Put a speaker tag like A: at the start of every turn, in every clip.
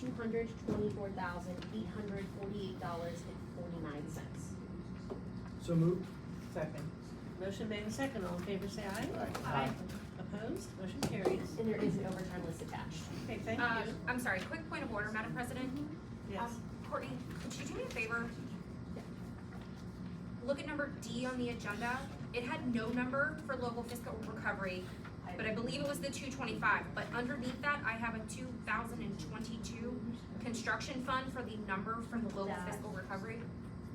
A: two hundred twenty-four thousand, eight hundred forty-eight dollars and forty-nine cents.
B: So moved.
C: Second.
D: Motion made in second, all in favor say aye.
B: Aye.
D: Opposed, motion carries.
A: And there is an overtime list attached.
D: Okay, thank
E: Um,
D: you.
E: I'm sorry, quick point of order, Madam President.
D: Yes,
E: Um, Courtney, could you do me a favor? Look at number D on the agenda. It had no number for local fiscal recovery, but I believe it was the two twenty-five. But underneath that, I have a two thousand and twenty-two construction fund for the number for the local
A: That-
E: fiscal recovery.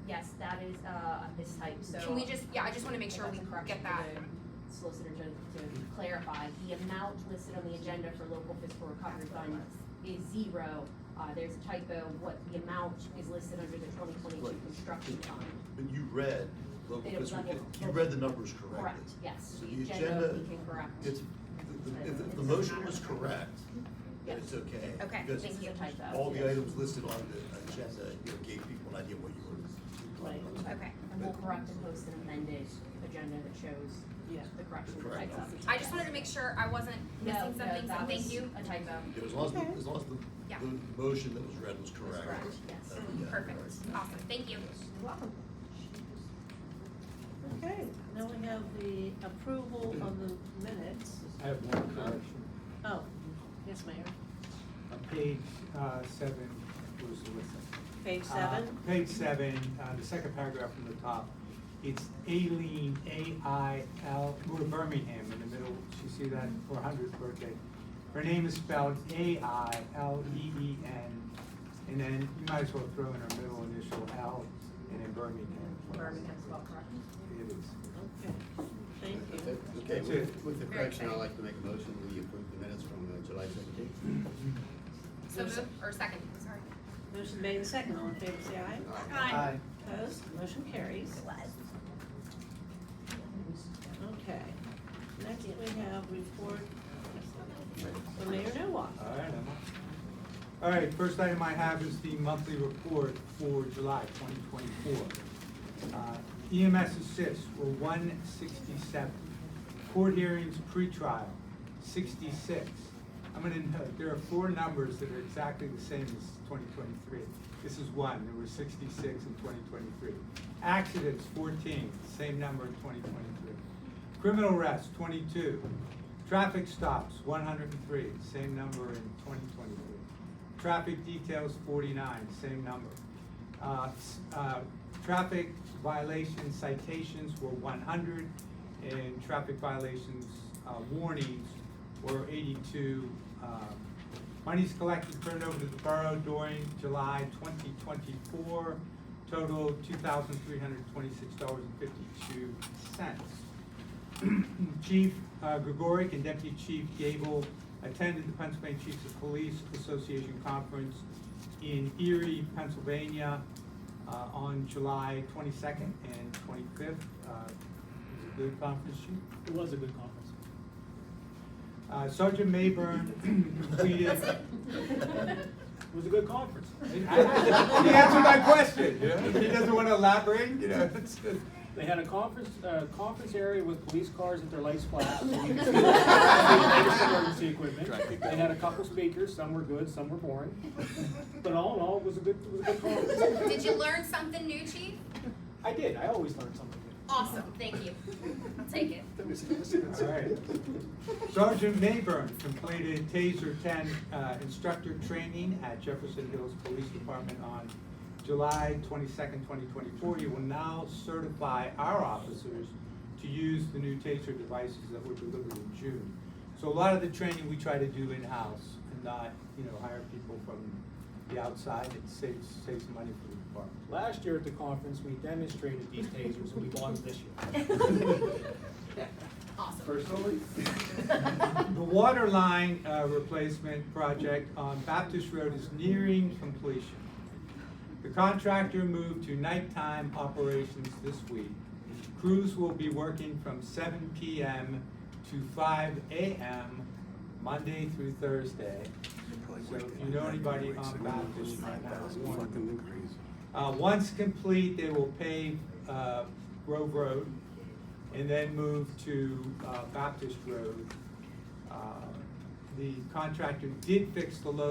A: Yes, that is, uh, this type, so.
E: Can we just, yeah, I just wanna make sure we
A: That's a correction
E: get that.
A: for the Solicitor Jones to clarify, the amount listed on the agenda for local fiscal recovery fund is zero. Uh, there's a typo, what the amount is listed under the twenty twenty-two
F: Right.
A: construction fund.
F: And you read local
A: It was
F: fiscal,
A: level-
F: you read the numbers
A: Correct,
F: correctly.
A: yes,
F: So
A: the
F: the
A: agenda
F: agenda-
A: we can correct.
F: It's, if, if- if the motion was correct, then it's okay.
E: Okay,
F: because
E: thank
A: This is a typo.
F: All the items listed on the agenda, you know, gave people an idea what you were.
A: Right.
E: Okay.
A: And we'll correct and post an amended agenda that shows
C: Yeah.
A: the correction.
F: Correct.
A: typos.
E: I just wanted to make sure I wasn't missing
A: No,
E: something,
A: no,
E: so
A: that
E: thank
A: was
E: you.
A: a typo.
F: Yeah, As long as,
D: Okay.
F: the- as long as
E: Yeah.
F: the, the motion that was read was correct.
A: correct, yes.
F: that would be
E: Perfect,
F: correct.
E: awesome, thank you.
A: You're welcome.
D: okay, now we have the approval of the minutes.
G: I have one correction.
D: Oh, yes, Mayor,
G: On page uh, seven, who's Melissa?
D: page
G: Uh,
D: seven,
G: Page seven, uh, the second paragraph from the top, it's Aileen, A-I-L, we're Birmingham in the middle, you see that, for her hundredth birthday. Her name is spelled A-I-L-E-E-N, E and then you might as well throw in her middle initial L, and then Birmingham.
A: Birmingham's well correct.
G: It is.
D: okay, thank you.
H: Okay,
G: That's
H: with
G: it.
H: with the
E: Very
H: correction, I'd
E: exciting.
H: like to make a motion, we approve the minutes from uh, July seventeenth.
E: So move, or second, sorry.
D: Motion made in second, all in favor say aye.
G: Aye.
D: Opposed, motion carries. Okay, next we have report from Mayor Noah.
G: All right, Emma. All right, first item I have is the monthly report for July twenty twenty-four. Uh, EMS assists were one sixty-seven. Court hearings pretrial, sixty-six. I'm gonna note, there are four numbers that are exactly the same as twenty twenty-three. This is one, there were sixty-six in twenty twenty-three. Accidents, fourteen, same number in twenty twenty-three. Criminal arrests, twenty-two. Traffic stops, one hundred and three, same number in twenty twenty-three. Traffic details, forty-nine, same number. Uh, s- uh, Traffic violation citations were one hundred, and traffic violations uh, warnings were eighty-two. um, Monies collected turned over to the borough during July twenty twenty-four, total two thousand three hundred twenty-six dollars and fifty-two cents. Chief uh, Gregoric and Deputy Chief Gable attended the Pennsylvania Chiefs of Police Association Conference in Erie, Pennsylvania, uh, on July twenty-second and twenty-fifth. Uh, it was a good conference, Chief.
B: It was a good conference.
G: Uh, Sergeant Mayburn completed.
B: It was a good conference.
G: He answered my question, you know? He doesn't want to elaborate, you know? it's just-
B: They had a conference, uh, conference area with police cars with their lights flash. so you could see the latest Emergency equipment. They had a couple speakers, some were good, some were boring. But all in all, it was a good, it was a good conference.
E: Did you learn something new, Chief?
B: I did, I always learn something new.
E: Awesome, thank you. I'll take it.
G: All right. Sergeant Mayburn completed TASER 10 uh, instructor training at Jefferson Hills Police Department on July 22nd, 2024. He will now certify our officers to use the new TASER devices that were delivered in June. So a lot of the training we try to do in-house and not, you know, hire people from the outside. It saves, saves money for the department.
B: Last year at the conference, we demonstrated these tasers and we bought them this year.
F: Personally?
G: The water line uh, replacement project on Baptist Road is nearing completion. The contractor moved to nighttime operations this week. Crews will be working from seven PM to five AM, Monday through Thursday. So if you know anybody on Baptist right now, warn them. Uh, once complete, they will pave, uh, Grove Road and then move to, uh, Baptist Road. Uh, The contractor did fix the load.